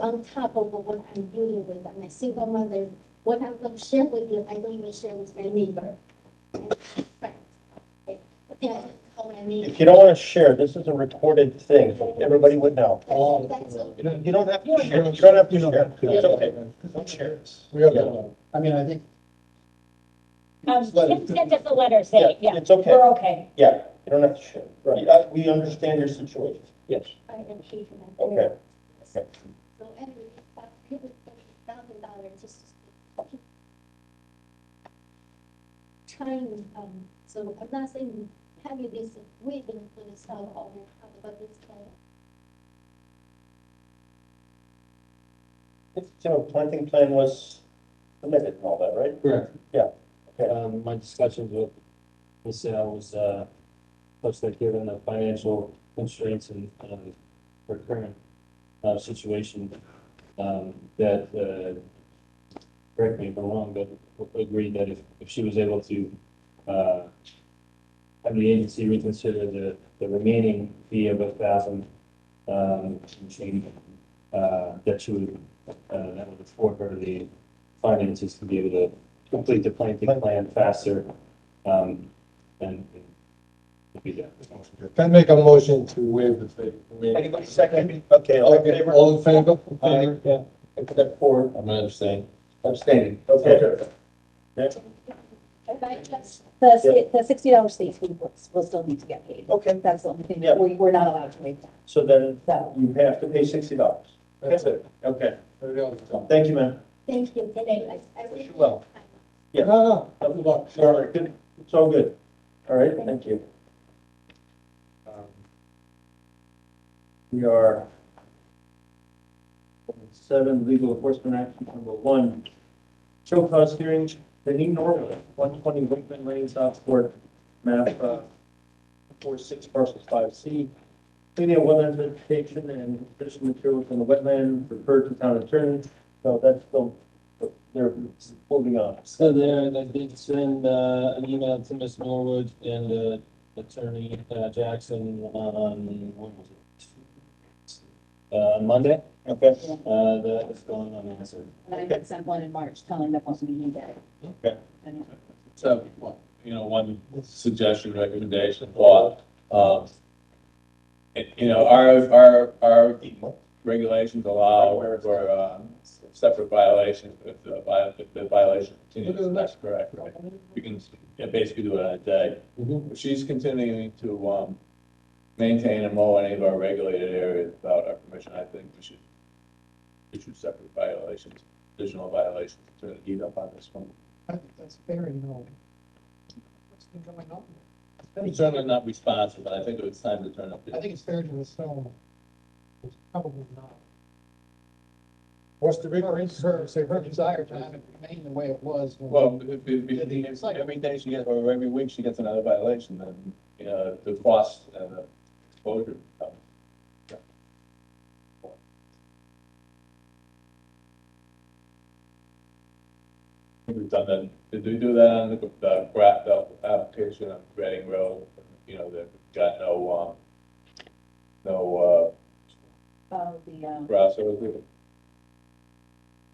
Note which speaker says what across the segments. Speaker 1: on top of what I'm dealing with. I'm a single mother. What I'm gonna share with you, I don't even share with my neighbor. Right. Yeah, how I mean.
Speaker 2: If you don't want to share, this is a recorded thing, so everybody would know.
Speaker 1: That's all.
Speaker 2: You don't- you don't have to share, you don't have to share, it's okay, don't share.
Speaker 3: We have, I mean, I think.
Speaker 4: Um,
Speaker 3: Just let
Speaker 4: Tim
Speaker 3: it-
Speaker 4: sent us a letter saying, yeah,
Speaker 2: It's okay,
Speaker 4: we're okay.
Speaker 2: yeah, you don't have to share,
Speaker 3: Right.
Speaker 2: Uh, we understand your situation. Yes.
Speaker 1: I am paying for that.
Speaker 2: Okay.
Speaker 1: So anyway, five hundred thirty thousand dollars just. to keep Trying, um, so I'm not saying having this waiting for the sell all the house, but it's like,
Speaker 2: It's, so planting plan was submitted and all that, right?
Speaker 5: Correct.
Speaker 2: Yeah, okay.
Speaker 5: Um, my discussions with Ms. Al was, uh, plus that given the financial constraints and, um, her current, uh, situation, um, that, uh, correct me if I'm wrong, but agreed that if, if she was able to, uh, have the agency reconsider the, the remaining fee of a thousand, um, and change, uh, that she would, uh, that would afford her the finances to be able to complete the planting plan faster, um, and and be done.
Speaker 3: Can I make a motion to waive the fee? I mean-
Speaker 2: Anybody second? Okay, all in
Speaker 3: Okay,
Speaker 2: favor?
Speaker 3: All in favor?
Speaker 2: Aye, yeah, except for,
Speaker 3: I'm gonna abstain. Abstaining.
Speaker 2: okay,
Speaker 1: uh, if I just,
Speaker 6: The, sta- the sixty dollar state fee will, will still need to get paid.
Speaker 2: okay,
Speaker 6: That's the only thing,
Speaker 2: Yeah.
Speaker 6: we, we're not allowed to waive that,
Speaker 2: so then
Speaker 6: so.
Speaker 2: you have to pay sixty dollars.
Speaker 3: That's it.
Speaker 2: Okay,
Speaker 3: Everybody else is done.
Speaker 2: thank you, ma'am.
Speaker 1: thank you, today, I, I wish.
Speaker 2: you well. Yeah.
Speaker 3: No, no, good luck.
Speaker 2: All right, good. It's all good. All right, thank you.
Speaker 3: Um,
Speaker 2: We are seven, legal enforcement action number one. Show cause hearing, the new normal, one twenty Wakeman Lane, Southport, map, uh, four six parcel five C. Cleaning of wetland vegetation and additional materials in the wetland referred to town attorney, so that's still, they're holding on.
Speaker 5: So there, and I did send, uh, an email to Ms. Norwood and, uh, Attorney uh, Jackson on, uh, what was it? Uh, Monday,
Speaker 2: Okay.
Speaker 5: uh, that is going unanswered.
Speaker 6: And I had sent one in March telling them once we need it.
Speaker 2: Okay.
Speaker 6: And-
Speaker 7: So, you know, one suggestion, recommendation, thought, um, it- you know, our, our, our regulations allow for, uh, separate violations, if the vi- if the violation continues, that's correct, right? You can, yeah, basically do it on a day. If she's continuing to, um, maintain and mow any of our regulated areas without our permission, I think we should issue separate violations, additional violations, to heat up on this one.
Speaker 3: I think that's very annoying. What's been going on?
Speaker 7: It's certainly not responsive, but I think it was time to turn up. the-
Speaker 3: I think it's fair to assume it's probably not. What's the reason? Her, say her desire to have it remain the way it was. when-
Speaker 7: Well, if, if, if, every day she gets, or every week she gets another violation, then, you know, the cost and the exposure. becomes- We've done that, did we do that on the, the graph app- application on Reading Road? You know, they've got no, um, no,
Speaker 6: Oh, the,
Speaker 7: uh,
Speaker 6: um,
Speaker 7: grass over there.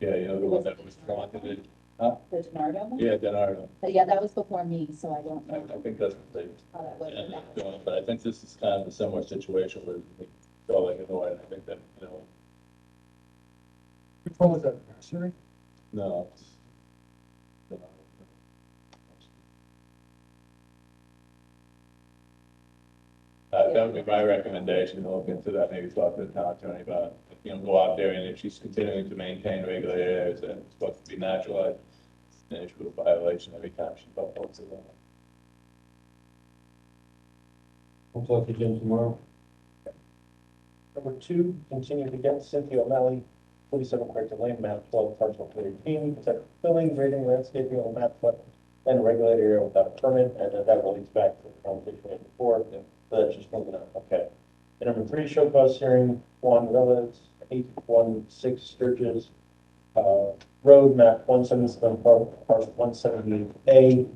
Speaker 7: Yeah, you know, the one that was planted,
Speaker 6: the Donardo one?
Speaker 7: yeah, Denardo,
Speaker 6: But yeah, that was before me, so I don't
Speaker 7: I, I
Speaker 6: know
Speaker 7: think that's what they
Speaker 6: how that was.
Speaker 7: Yeah, they're doing it, But I think this is kind of a similar situation where we go like Illinois, and I think that, you know,
Speaker 3: Which one was that? Nursery?
Speaker 7: no. it's- no. Uh, that would be my recommendation, to look into that, maybe talk to the town attorney about, it. you know, go out there and if she's continuing to maintain regulated areas and it's supposed to be naturalized, then it should be a violation every time she bumped into them.
Speaker 5: I'll talk to Jim tomorrow.
Speaker 2: Number two, continued against Cynthia O'Malley, forty-seven Quaker Lane, map twelve, parcel thirteen, protect filling, grading, landscaping on map what, and regulated area without a permit, and that that relates back to the conversation we had before, so that's just moving on, okay. And number three, show cause hearing, Juan Villas, eight one six Sturgis, uh, road map one seven seven, parcel one seventy A,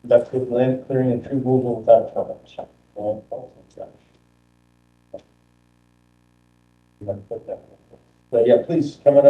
Speaker 2: conducted land clearing and tree removal without a permit. Well, that's- that's- Let's put that. But yeah, please come on